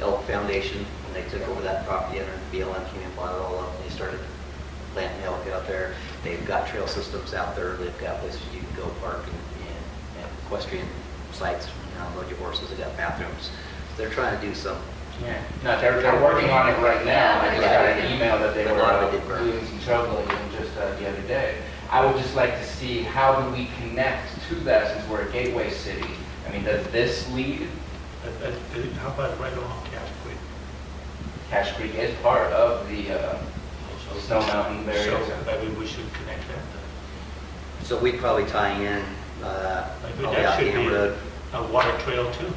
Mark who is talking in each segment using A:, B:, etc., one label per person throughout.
A: Elk Foundation, and they took over that property, and then BLM came and bought it all up, and they started planting elk out there. They've got trail systems out there, they've got places you can go park and- and and equestrian sites, you know, load your horses, they got bathrooms. They're trying to do some,
B: Yeah, no, they're, they're working on it right now, I just got an email that they
A: But
B: were
A: not if
B: uh,
A: it did burn.
B: doing some trailblazing just uh, the other day. I would just like to see, how do we connect to that since we're a gateway city? I mean, does this lead,
C: I- I- I think- Uh, How about right along Cache Creek?
B: Cache Creek is part of the uh, Snow Mountain
C: So uh,
B: barrier.
C: maybe we should connect that. then.
A: so we'd probably tie in, uh,
C: Maybe
D: Oh,
A: probably
C: that
A: out
C: should
A: Dam
C: be
A: Road.
C: a- a water trail too,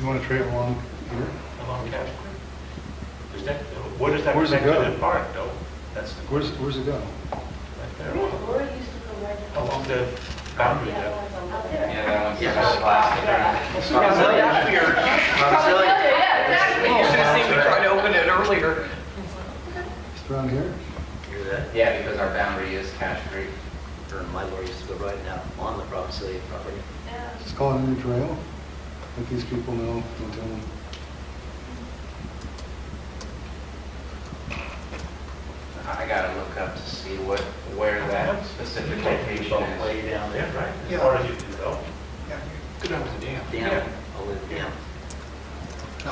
D: You want to trail along here?
C: along Cache Creek. Is that, where does that
D: Where's it
C: connect to
D: go?
C: the park though? That's the,
D: Where's, where's it going?
C: right there, along-
E: Laura used to go right
C: along the boundary there.
E: out there.
B: Yeah, that one's
A: Yeah.
B: just plastic.
A: Monticello. Monticello.
E: Yeah, exactly.
F: You should have seen me try to open it earlier.
D: Just around here?
A: Hear that?
B: Yeah, because our boundary is Cache Creek.
A: Or my lawyer used to go riding out on the Providence City property.
E: Yeah.
D: Just call it a new trail. Let these people know, don't tell them.
B: I I gotta look up to see what, where that specific location is.
C: Way down there, right?
F: Yeah.
C: As far as you can go.
F: Go down to the dam.
A: Damn, I'll live down.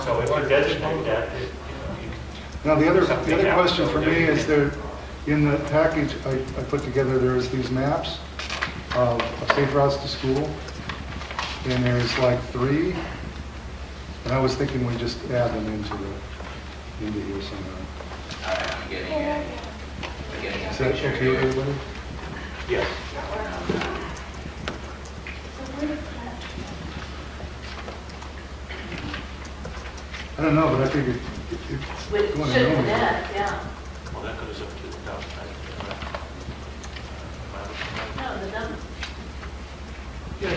C: So if you designate that, it- you know, you can
D: Now, the other, the
C: Something
D: other
C: else.
D: question for me is there, in the package I, I put together, there is these maps of of safe routes to school, and there's like three, and I was thinking we just add them into the, into here somehow.
B: All right, I'm getting a, I'm getting a
D: Is that
B: picture
D: okay,
B: here.
D: everybody?
C: Yes.
D: I don't know, but I figured if- if
E: But it
D: you
E: should
D: want to know
E: have
D: me.
E: that, yeah.
C: Well, that goes up to the top. right?
E: No, the number,
C: Yeah,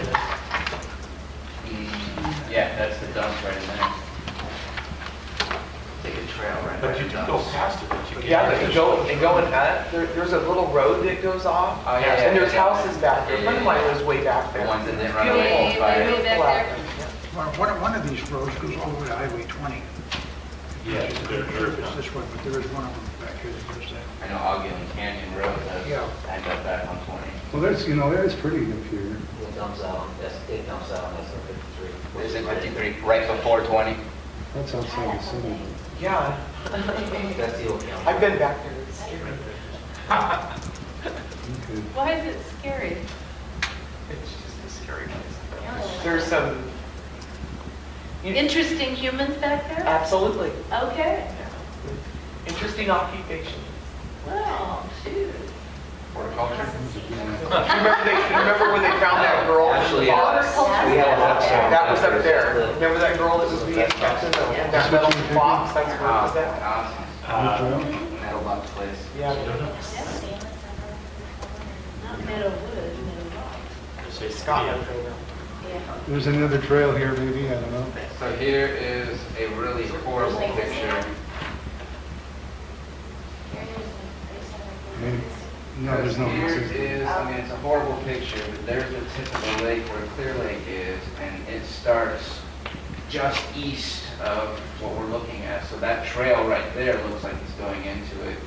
B: Mm, Yeah, that's the dump right in there. Take a trail right
C: But you can go past it, but you
F: But
C: can't.
F: Yeah, they go, they go in that, there, there's a little road that goes off.
B: Oh, yeah, yeah,
F: And there's
B: yeah, yeah.
F: houses back there.
B: Yeah,
F: One of
B: yeah,
F: mine
B: yeah.
F: was way back
B: The
F: there.
B: ones that they run
F: Beautiful.
B: away by.
G: way back
H: Well, One, one of these roads goes all the way to Highway 20.
C: Yeah,
H: I'm
C: it's
H: not sure if it's
C: good.
H: this one, but there is one of them back here that goes that.
B: I know Ogden Canyon Road does
H: Yeah.
B: end up back on 20.
D: Well, there's, you know, that is pretty up here.
A: It dumps out, on- that's, it dumps out on SR fifty-three.
B: Is it 53, right before 20?
D: That's outside the city.
F: Yeah,
A: That's the old county.
F: I've been back there. It's scary.
D: Okay.
G: Why is it scary?
F: It's just a scary place.
G: Yeah.
F: There's some. you-
G: Interesting humans back there?
F: Absolutely.
G: Okay,
F: Yeah. Interesting occupation.
G: well, shoot.
B: Horticulture?
F: Remember they, remember when they found that girl?
A: Actually, uh,
G: Bob-
A: we have a hot
G: Yeah,
A: spot.
F: That was up there.
A: That's the-
F: Remember that girl that was being kept in the, in that
D: Yeah.
F: metal box? That's where it was at.
B: Ah,
C: Uh,
D: New trail?
B: Awesome. Metal box place.
C: I
F: Yeah.
C: don't
B: Ah.
G: Not
C: know.
G: metal wood, metal rock.
C: It's a-
F: Scotland program.
G: Yeah.
D: There's another trail here, maybe, I don't know.
B: So here is a really horrible picture.
D: Maybe- No, there's no.
B: Here
D: access to it.
B: is, I mean, it's a horrible picture, but there's the tip of the lake where Clear Lake is, and it starts just east of what we're looking at. So that trail right there looks like it's going into it.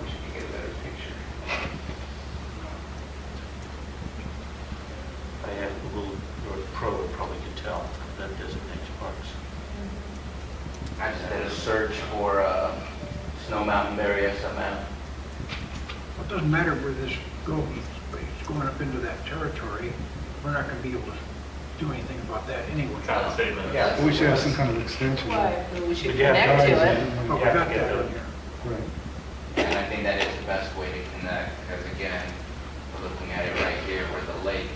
B: Wish I could get a better picture.
C: I have Google or Pro would probably can tell that designates parks.
B: I just did a search for uh, Snow Mountain Barrier somehow.
H: Well, It doesn't matter where this goes, but it's going up into that territory. We're not going to be able to do anything about that anyway.
C: Kind of same as-
F: Yeah.
D: We should have some kind of extension.
G: Why? We should
C: But you have
G: connect to it.
D: Yeah.
H: Oh, we got that on here.
D: Right.
B: And I think that is the best way to connect, because again, we're looking at it right here where the lake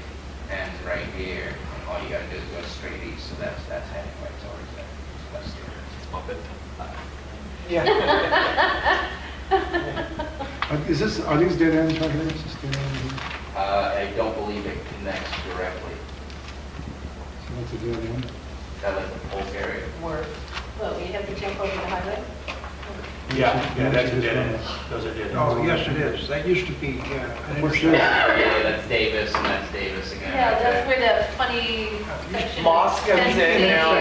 B: ends right here. and All you gotta do is go straight east, so that's, that's heading right towards that. So that's the-
C: I'll bet.
F: Yeah.
D: Uh, Is this, are these dead ends right here? Is this dead end here?
B: Uh, I don't believe it connects directly.
D: So that's a dead end.
B: That like the Polk area.
G: Where, well, you have to jump over the highway?
C: Yeah, yeah, that's a
D: Just
C: dead
D: run
C: end. Those are dead ends.
H: Oh, yes, it is. That used to be, yeah. an
D: For
H: intersection.
D: sure.
B: Yeah, That's Davis, and that's Davis again.
G: Yeah,
B: right there.
G: that's where that funny section.
F: Mosque comes in
G: Fencing.
F: now.